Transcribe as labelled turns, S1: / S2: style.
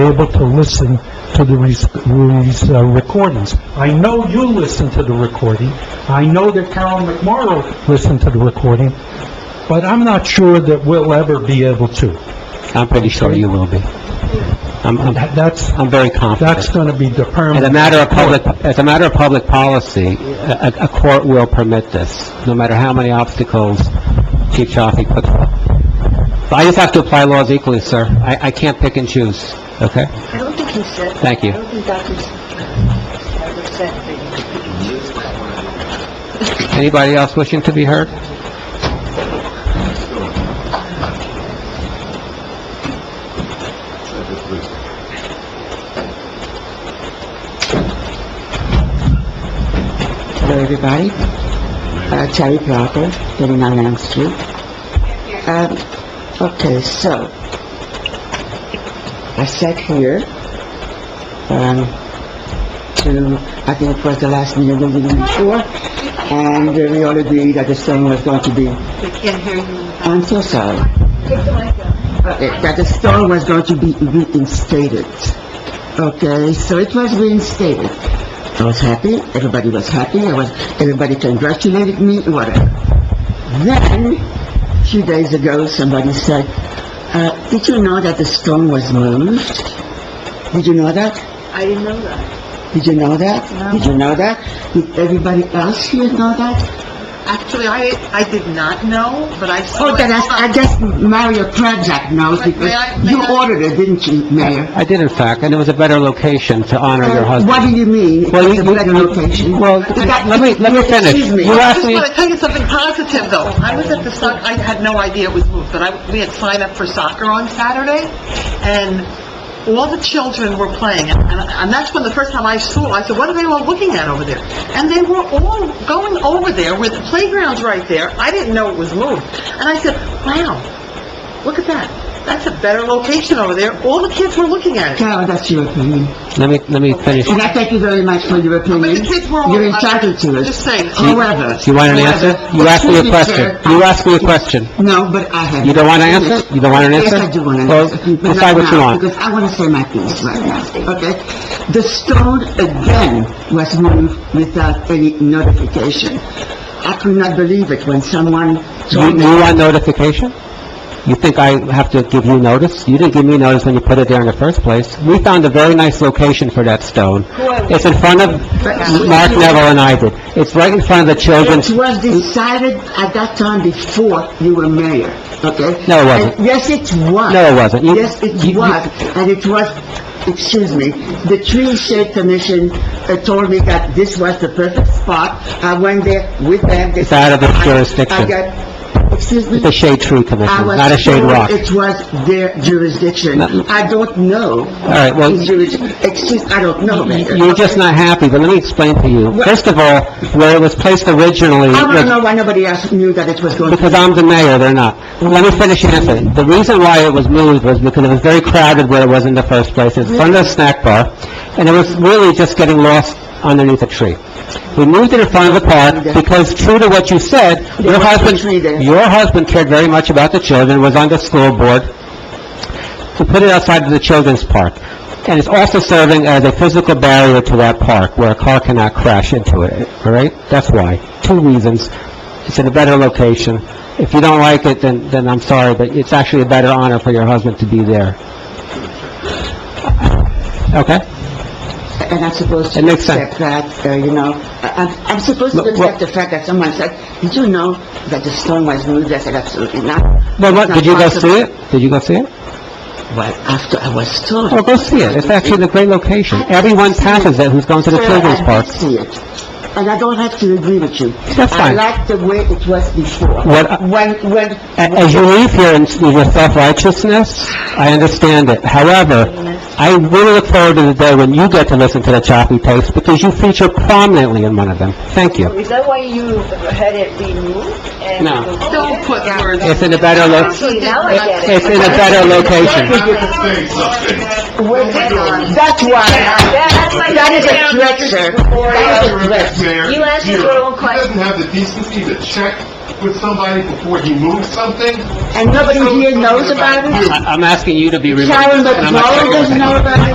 S1: able to listen to the res- these uh, recordings. I know you listened to the recording, I know that Carol McMorro listened to the recording, but I'm not sure that we'll ever be able to.
S2: I'm pretty sure you will be. I'm, I'm,
S1: That- That's,
S2: I'm very
S1: that's
S2: confident.
S1: gonna be
S2: As
S1: determined.
S2: a matter of public, as a matter of public policy, a, a- a court will permit this, no matter how many obstacles Chief Chaffee puts up. But I just have to apply laws equally, sir. I, I can't pick and choose, okay?
S3: I don't think he said. that.
S2: Thank you.
S3: I don't think Dr. Snyder said that.
S2: Anybody else wishing to be heard?
S4: Hello, everybody. Uh, Terry Plata, 39 Elm Street. Um, okay, so, I sat here, um, to, I think it was the last meeting, the meeting before, and we all agreed that the stone was going to be,
S3: We can't hear you.
S4: I'm so sorry,
S3: Take the mic out.
S4: Uh, that the stone was going to be reinstated. Okay, so it was reinstated. I was happy, everybody was happy, I was, everybody congratulated me, whatever. Then, a few days ago, somebody said, uh, "Did you know that the stone was moved? Did you know that?
S3: I didn't know that.
S4: Did you know that?
S3: No.
S4: Did you know that? Did everybody else here know that?"
S3: Actually, I, I did not know, but I saw.
S4: Oh, then I, I guess Mario Krajak knows
S3: May- may
S4: because
S3: I- may
S4: you
S3: I-
S4: ordered it, didn't you, Mayor?
S2: I did, in fact, and it was a better location to honor your husband.
S4: What do you mean? It
S2: Well,
S4: was
S2: you-
S4: a
S2: you-
S4: better
S2: you-
S4: location.
S2: Well,
S4: You got-
S2: let me, let me finish.
S4: Excuse me.
S2: You
S3: I
S2: asked
S3: just
S2: me,
S3: want to tell you something positive, though. I was at the soccer, I had no idea it was moved, but I, we had signed up for soccer on Saturday, and all the children were playing, and, and that's when the first time I saw, I said, what are they all looking at over there? And they were all going over there where the playground's right there. I didn't know it was moved. And I said, wow, look at that. That's a better location over there. All the kids were looking at it.
S4: Carol, that's your opinion.
S2: let me, let me finish.
S4: And I thank you very much for your
S3: But
S4: opinion.
S3: the kids were all...
S4: You're entitled to it.
S3: Just saying. "Oh,
S4: However...
S2: You want an answer? You asked me a question. You asked me a question.
S4: No, but I have...
S2: You don't want an answer? You don't want an answer?
S4: Yes, I do want an
S2: Well,
S4: answer. but not
S2: decide what you
S4: now,
S2: want.
S4: Because I want to say my piece right now, okay? The stone again was moved without any notification. I could not believe it when someone
S2: You,
S4: told me...
S2: you want notification? You think I have to give you notice? You didn't give me notice when you put it there in the first place. We found a very nice location for that stone. It's in front of, Mark Neville and I did. It's right in front of the children's,
S4: It was decided at that time before you were mayor, okay?
S2: No, it wasn't.
S4: And Yes, it was.
S2: No, it wasn't. You-
S4: Yes, it
S2: you-
S4: was, and it was, excuse me, the Tree Shade Commission uh, told me that this was the perfect spot. I went there with them. They
S2: It's out of their
S4: said, I-
S2: jurisdiction.
S4: I got, excuse me?
S2: it's a shade tree
S4: I
S2: commission,
S4: was
S2: not a shade
S4: told
S2: rock.
S4: It was their jurisdiction.
S2: No.
S4: I don't know. All
S2: right, well-
S4: Excuse, I don't know, Mayor.
S2: You're just not happy, but let me explain to you. First of all, where it was placed originally...
S4: I want
S2: was-
S4: to know why nobody else knew that it was going to be...
S2: Because I'm the mayor, they're not. Let me finish answering. The reason why it was moved was because it was very crowded where it was in the first place, it's in front of the snack bar, and it was really just getting lost underneath a tree. We moved it in front of the park because true to what you said, your
S4: was a
S2: husband,
S4: tree there.
S2: your husband cared very much about the children, was on the school board, to put it outside of the children's park. And it's also serving as a physical barrier to that park where a car cannot crash into it, all right? That's why. Two reasons. It's in a better location. If you don't like it, then, then I'm sorry, but it's actually a better honor for your husband to be there. Okay?
S4: And I'm supposed
S2: It
S4: to
S2: makes sense.
S4: accept that, uh, you know, I- I'm, I'm supposed to
S2: Look,
S4: accept the fact that someone said, "Did you know that the stone was moved?" I said, "Absolutely not."
S2: Well, what,
S4: It's
S2: did you
S4: not
S2: go see
S4: possible."
S2: it? Did you go see it?
S4: Well, after I was told.
S2: Well, Oh, go see it. It's actually in a great location. Everyone passes it who's going to the
S4: Sir,
S2: children's
S4: I
S2: park.
S4: did see it, and I don't have to agree with you.
S2: That's fine.
S4: I like the way it was before.
S2: What-
S4: When, when...
S2: A- As you leave here in in your self-righteousness, I understand it. However, I really look forward to the day when you get to listen to the choppy tapes, because you feature prominently in one of them. Thank you.
S5: Is that why you had it removed and...
S2: No.
S3: Don't put words...
S2: It's in a better lo,
S5: See, now I get it.
S2: it's in a better location.
S4: That's why,
S5: That's that's my...
S4: That is a threat, sir. That is a threat.
S6: Mayor,
S5: You asked your own question.
S6: He doesn't have the decency to check with somebody before he moves something.
S4: And nobody here knows about it?
S6: You.
S2: I- I'm asking you to be removed.
S4: Karen
S2: and I'm not
S4: McMorro
S2: checking with
S4: doesn't know about it?